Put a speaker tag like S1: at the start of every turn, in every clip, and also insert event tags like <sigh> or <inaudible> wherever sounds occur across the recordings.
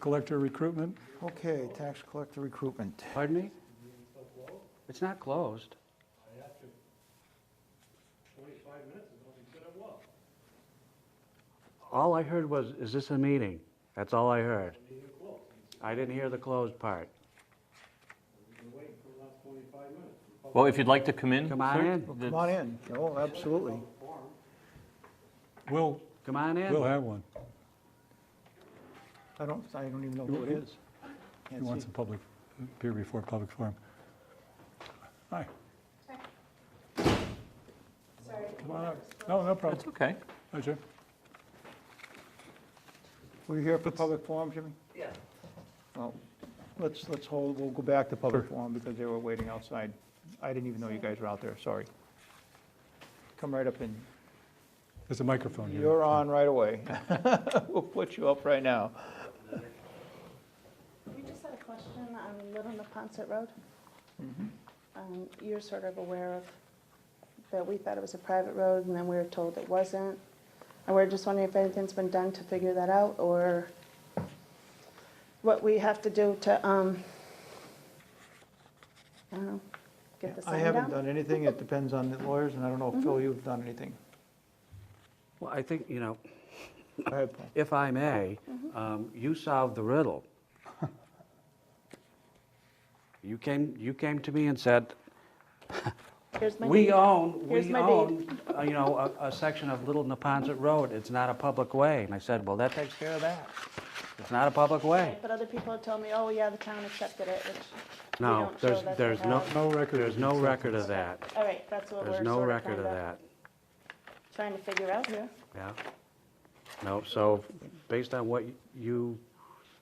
S1: collector recruitment,
S2: Okay, tax collector recruitment.
S3: Pardon me? It's not closed. All I heard was, is this a meeting? That's all I heard. I didn't hear the closed part.
S4: Well, if you'd like to come in.
S3: Come on
S4: sir,
S3: in.
S4: the-
S2: Come on in. Oh, absolutely.
S1: we'll,
S3: Come on
S1: we'll
S3: in.
S1: have one.
S2: I don't, I don't even know who it is.
S1: He
S2: Can't
S1: wants
S2: see.
S1: a public, appear before public forum. Hi,
S5: Sorry.
S1: come on up. No, no problem.
S4: That's okay.
S1: Hi, Jim.
S2: Were you here for public forum, Jimmy? Yeah. Well, let's, let's hold, we'll go back to public forum because they were waiting outside. I didn't even know you guys were out there, sorry. Come right up in.
S1: There's a microphone here.
S2: You're on right away. <laughs> We'll put you up right now.
S5: You just had a question on Little Napontet Road.
S2: Mm-hmm.
S5: Um, You're sort of aware of that we thought it was a private road, and then we were told it wasn't. And we're just wondering if anything's been done to figure that out, or what we have to do to, um, I don't know, get the sign
S2: I
S5: down?
S2: haven't done anything. It depends on the lawyers, and I don't know if Phil, you've done anything.
S3: Well, I think, you know,
S2: Go ahead, Paul.
S3: if I may, um, you solved the riddle. You came, you came to me and said,
S5: Here's my
S3: We
S5: deed.
S3: own,
S5: Here's
S3: we
S5: my
S3: own, uh, you know, a, a section of Little Neponset Road, it's not a public way. And I said, well, that takes care of that. It's not a public way.
S5: But other people have told me, oh, yeah, the town accepted it, which we
S3: No,
S5: don't show
S3: there's,
S5: that they
S3: there's no,
S5: have.
S1: No record.
S3: there's no record of that.
S5: All right, that's what
S3: There's
S5: we're
S3: no
S5: sort of
S3: record of
S5: kind of
S3: that,
S5: trying to figure out here.
S3: yeah. No, so based on what you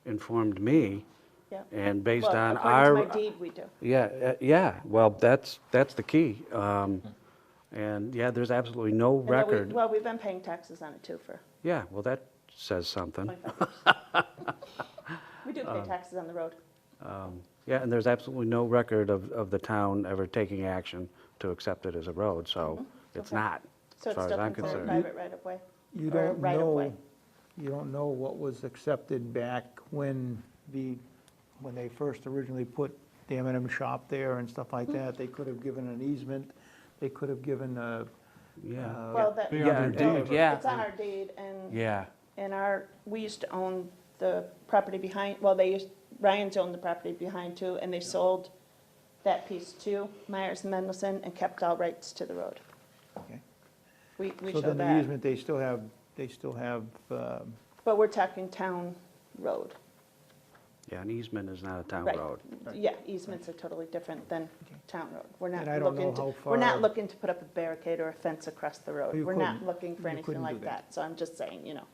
S3: informed me
S5: Yeah.
S3: and based
S5: Well,
S3: on our.
S5: according to my deed, we do.
S3: Yeah, uh, yeah, well, that's, that's the key. Um, And yeah, there's absolutely no
S5: And that we-
S3: record.
S5: Well, we've been paying taxes on it too
S3: <laughs>
S5: for
S3: Yeah, well, that says something.
S5: 25 years. We do pay taxes on the road.
S3: Um, Yeah, and there's absolutely no record of, of the town ever taking action to accept it as a road, so it's
S5: Mm-hmm. Okay.
S3: not,
S5: So
S3: as
S5: it's
S3: far as
S5: still
S3: I'm
S5: considered
S3: concerned.
S5: private right of way.
S2: You
S5: or
S2: don't
S5: right of way.
S2: know, you don't know what was accepted back when the, when they first originally put the M and M shop there and stuff
S5: Hmm.
S2: like that. They could have given an easement, they could have given a.
S3: Yeah,
S2: uh,
S5: Well, that,
S1: Be
S3: Yeah,
S1: on
S3: and-
S1: their
S3: and-
S1: deed.
S3: yeah.
S5: it's on our deed and,
S3: yeah,
S5: and our, we used to own the property behind, well, they used, Ryan's owned the property behind too, and they sold that piece to Myers and Mendelson and kept all rights to the road.
S2: Okay.
S5: We, we
S2: So
S5: show
S2: then the
S5: that.
S2: easement, they still have, they still have, um,
S5: But we're talking town road.
S3: yeah, an easement is not a town
S5: Right.
S3: road.
S5: Yeah, easements are totally different than town road. We're not
S2: And I don't know
S5: looking to,
S2: how
S5: we're not
S2: far-
S5: looking to put up a barricade or a fence across the road.
S2: You
S5: We're not
S2: couldn't-
S5: looking for
S2: you couldn't
S5: anything
S2: do
S5: like
S2: that.
S5: that. So I'm just saying, you know,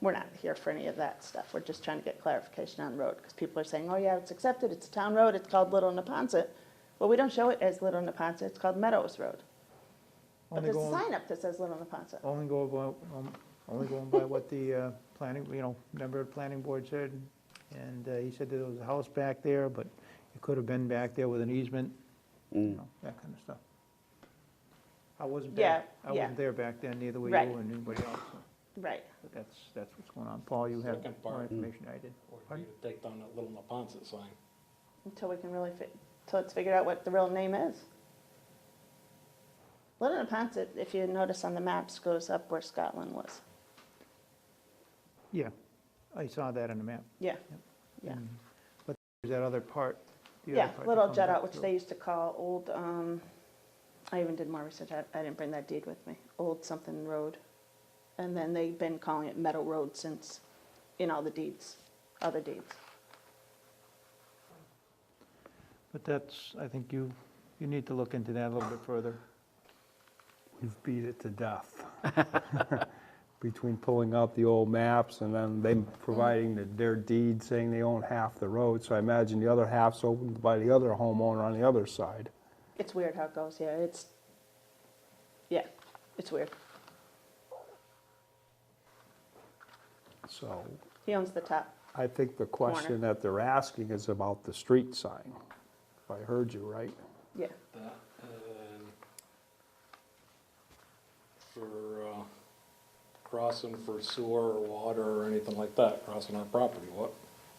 S5: we're not here for any of that stuff. We're just trying to get clarification on the road because people are saying, oh, yeah, it's accepted. It's a town road. It's called Little Napontet. Well, we don't show it as Little Napontet. It's called Meadows Road. But
S2: only
S5: there's a
S2: going, Oh.
S5: sign up that says Little Napontet.
S2: only go by, um, only going by what the uh, planning, you know, member of the planning board said. And uh, he said that there was a house back there, but it could have been back there with an easement, you know, that kind of stuff. I wasn't back,
S5: Yeah,
S2: I
S5: yeah.
S2: wasn't there back then, neither were you
S5: Right.
S2: and anybody else. so,
S5: Right.
S2: But that's, that's what's going on. Paul, you have
S6: Second
S2: more
S6: part.
S2: information than I did.
S6: Or you take down that little Napontet sign.
S5: Until we can really, fi- until it's figured out what the real name is. Little Napontet, if you notice on the maps, goes up where Scotland was.
S2: Yeah, I saw that on the map.
S5: Yeah, yeah.
S2: And- But there's that other part. the other
S5: Yeah,
S2: part that
S5: Little
S2: comes
S5: Jet
S2: up
S5: Out, which
S2: through.
S5: they used to call Old, um, I even did more research, I, I didn't bring that deed with me, Old something road. And then they've been calling it Meadow Road since, in all the deeds, other deeds.
S2: But that's, I think you, you need to look into that a little bit further.
S7: You've beat it to death. <laughs> Between pulling out the old maps and then them providing the- their deed saying they own half the road. So I imagine the other half's owned by the other homeowner on the other side.
S5: It's weird how it goes, yeah, it's, yeah, it's weird.
S7: So
S5: He owns the top.
S7: I think the question that they're asking is about the street sign. If I heard you right.
S5: Yeah,
S6: That, and for, uh, crossing for sewer or water or anything like that, crossing our property, what,